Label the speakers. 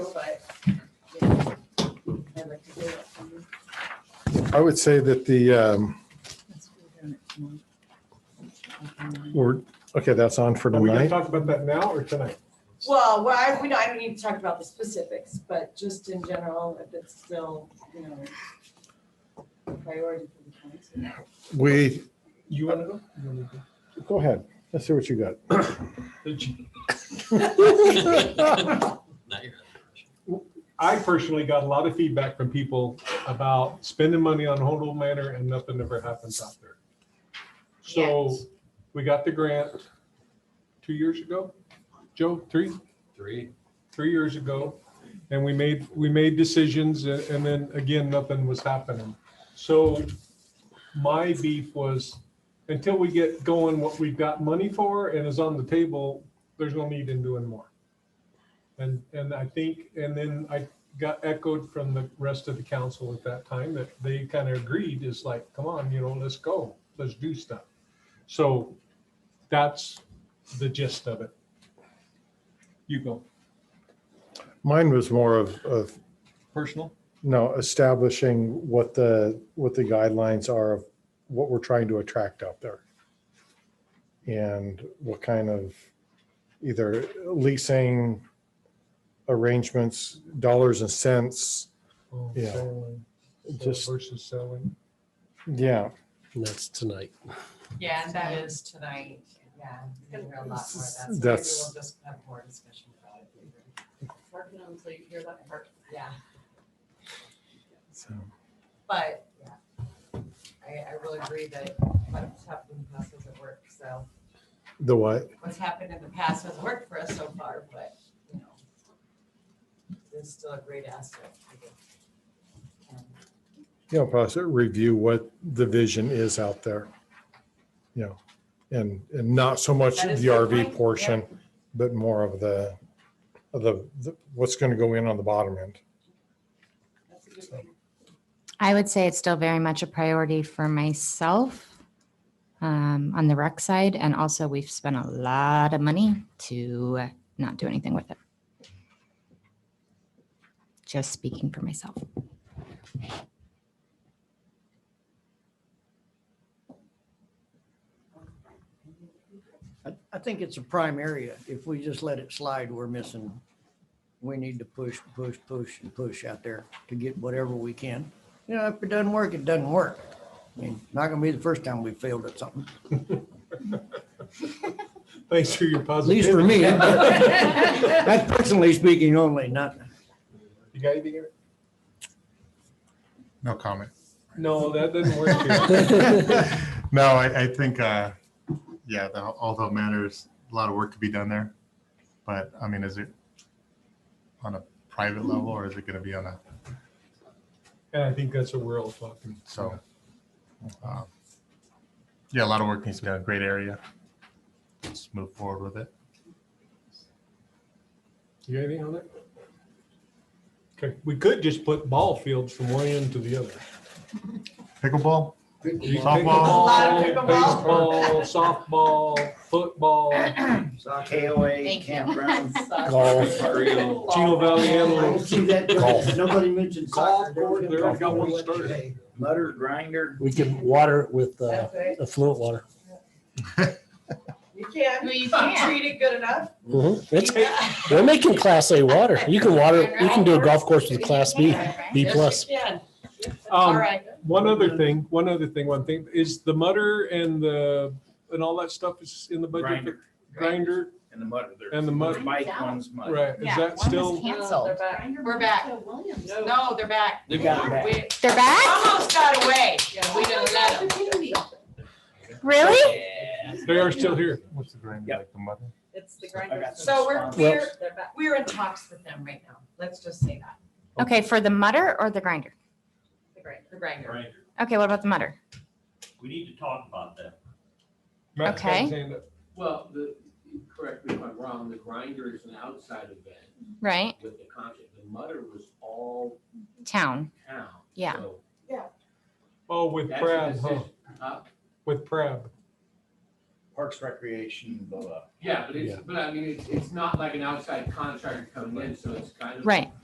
Speaker 1: but. you know, I'd like to do it.
Speaker 2: I would say that the, um, we're, okay, that's on for
Speaker 3: Are we gonna
Speaker 2: tonight.
Speaker 3: talk about that now or tonight?
Speaker 1: Well, well, I, we don't, I don't need to talk about the specifics, but just in general, if it's still, you know, a priority for the council.
Speaker 2: We,
Speaker 3: You wanna go? You wanna go?
Speaker 2: go ahead. Let's see what you got.
Speaker 4: Not your-
Speaker 3: I personally got a lot of feedback from people about spending money on Honolulu Manor and nothing ever happens out there. So
Speaker 5: Yes.
Speaker 3: we got the grant two years ago, Joe, three,
Speaker 4: Three.
Speaker 3: three years ago. And we made, we made decisions a- and then again, nothing was happening. So my beef was until we get going, what we've got money for and is on the table, there's no need in doing more. And, and I think, and then I got echoed from the rest of the council at that time that they kind of agreed is like, come on, you know, let's go, let's do stuff. So that's the gist of it. You go.
Speaker 2: Mine was more of, of,
Speaker 3: Personal?
Speaker 2: no, establishing what the, what the guidelines are of what we're trying to attract out there. And what kind of either leasing arrangements, dollars and cents. Yeah. Just-
Speaker 3: Oh, Versus selling.
Speaker 2: Yeah,
Speaker 6: And that's tonight.
Speaker 5: Yeah, and that is tonight, yeah. We'll hear a lot more of that, so maybe
Speaker 2: That's-
Speaker 5: We'll just have more discussion about it.
Speaker 1: Working on until you hear that part.
Speaker 5: Yeah,
Speaker 2: so.
Speaker 5: but, yeah. I, I really agree that what's happened in the past doesn't work, so
Speaker 2: The what?
Speaker 5: what's happened in the past has worked for us so far, but, you know. It's still a great asset. for the town.
Speaker 2: you know, possibly review what the vision is out there. You know, and, and not so much
Speaker 5: That is
Speaker 2: the
Speaker 5: a good point,
Speaker 2: RV
Speaker 5: yeah.
Speaker 2: portion, but more of the, of the, the- what's going to go in on the bottom end.
Speaker 1: That's a good thing.
Speaker 7: I would say it's still very much a priority for myself um, on the rec side. And also, we've spent a lot of money to not do anything with it. Just speaking for myself.
Speaker 8: I, I think it's a prime area. If we just let it slide, we're missing. We need to push, push, push and push out there to get whatever we can. You know, if it doesn't work, it doesn't work. I mean, not gonna be the first time we failed at something,
Speaker 3: Thanks for your
Speaker 8: at least for
Speaker 3: positivity.
Speaker 8: me. That's personally speaking only, not,
Speaker 3: You got anything? Eric?
Speaker 9: No comment.
Speaker 3: No, that doesn't work here.
Speaker 9: No, I, I think, uh, yeah, the, although matters, a lot of work to be done there. But I mean, is it on a private level or is it going to be on a,
Speaker 3: And I think that's what we're all talking.
Speaker 9: so. um, Yeah, a lot of work needs to be done. Great area. Let's move forward with it.
Speaker 3: You got anything on that? Okay, we could just put ball fields from one end to the other.
Speaker 9: Pickleball?
Speaker 5: Softball.
Speaker 3: Pickleball, Baseball, softball, football,
Speaker 8: KOA,
Speaker 7: Thank you.
Speaker 8: campground.
Speaker 3: Chino Valley
Speaker 8: I
Speaker 3: Antelope.
Speaker 8: see that,
Speaker 2: Golf.
Speaker 8: nobody mentioned soccer.
Speaker 3: Golf course, there we got one started.
Speaker 8: Mutter grinder.
Speaker 6: We can water it with uh,
Speaker 1: That's right.
Speaker 6: affluent water.
Speaker 1: You can.
Speaker 5: Well, you
Speaker 1: not Treat it good enough.
Speaker 6: Mm-hmm. It's, we're making class A water. You can water, you can do a golf course with class B, B
Speaker 1: Yes, you
Speaker 6: plus.
Speaker 1: can. All
Speaker 3: Um,
Speaker 1: right.
Speaker 3: one other thing, one other thing, one thing, is the mutter and the, and all that stuff is in the budget.
Speaker 10: Grinder.
Speaker 3: Grinder,
Speaker 10: And the mud. there's-
Speaker 3: And the mud.
Speaker 10: Bike one's mud.
Speaker 3: right, is that still,
Speaker 7: canceled.
Speaker 5: We're back. No, they're back.
Speaker 10: They got it back.
Speaker 5: We
Speaker 7: They're back?
Speaker 5: almost got away, we didn't let them.
Speaker 7: Really?
Speaker 3: they are still here.
Speaker 9: What's the grind
Speaker 10: Yep.
Speaker 9: like the mud?
Speaker 1: It's the grinder.
Speaker 5: So we're,
Speaker 10: Well-
Speaker 5: we're,
Speaker 1: They're back.
Speaker 5: we're in talks with them right now. Let's just say that,
Speaker 7: Okay, for the mutter or the grinder?
Speaker 5: the grinder. The grinder.
Speaker 7: Okay, what about the mutter?
Speaker 10: We need to talk about that.
Speaker 3: Matt's got his hand up.
Speaker 11: Well, the, correct me if I'm wrong, the grinder is an outside event
Speaker 7: Right?
Speaker 11: with the concert. The mutter was all
Speaker 7: Town.
Speaker 11: town.
Speaker 7: Yeah.
Speaker 11: so
Speaker 3: Oh, with
Speaker 11: that's a
Speaker 3: Brad, huh?
Speaker 11: decision. Uh, Huh?
Speaker 3: With Prab.
Speaker 10: Parks, recreation, blah, blah.
Speaker 11: Yeah, but it's, but I mean, it's, it's not like an outside contractor coming in, so it's kind of.
Speaker 7: Right.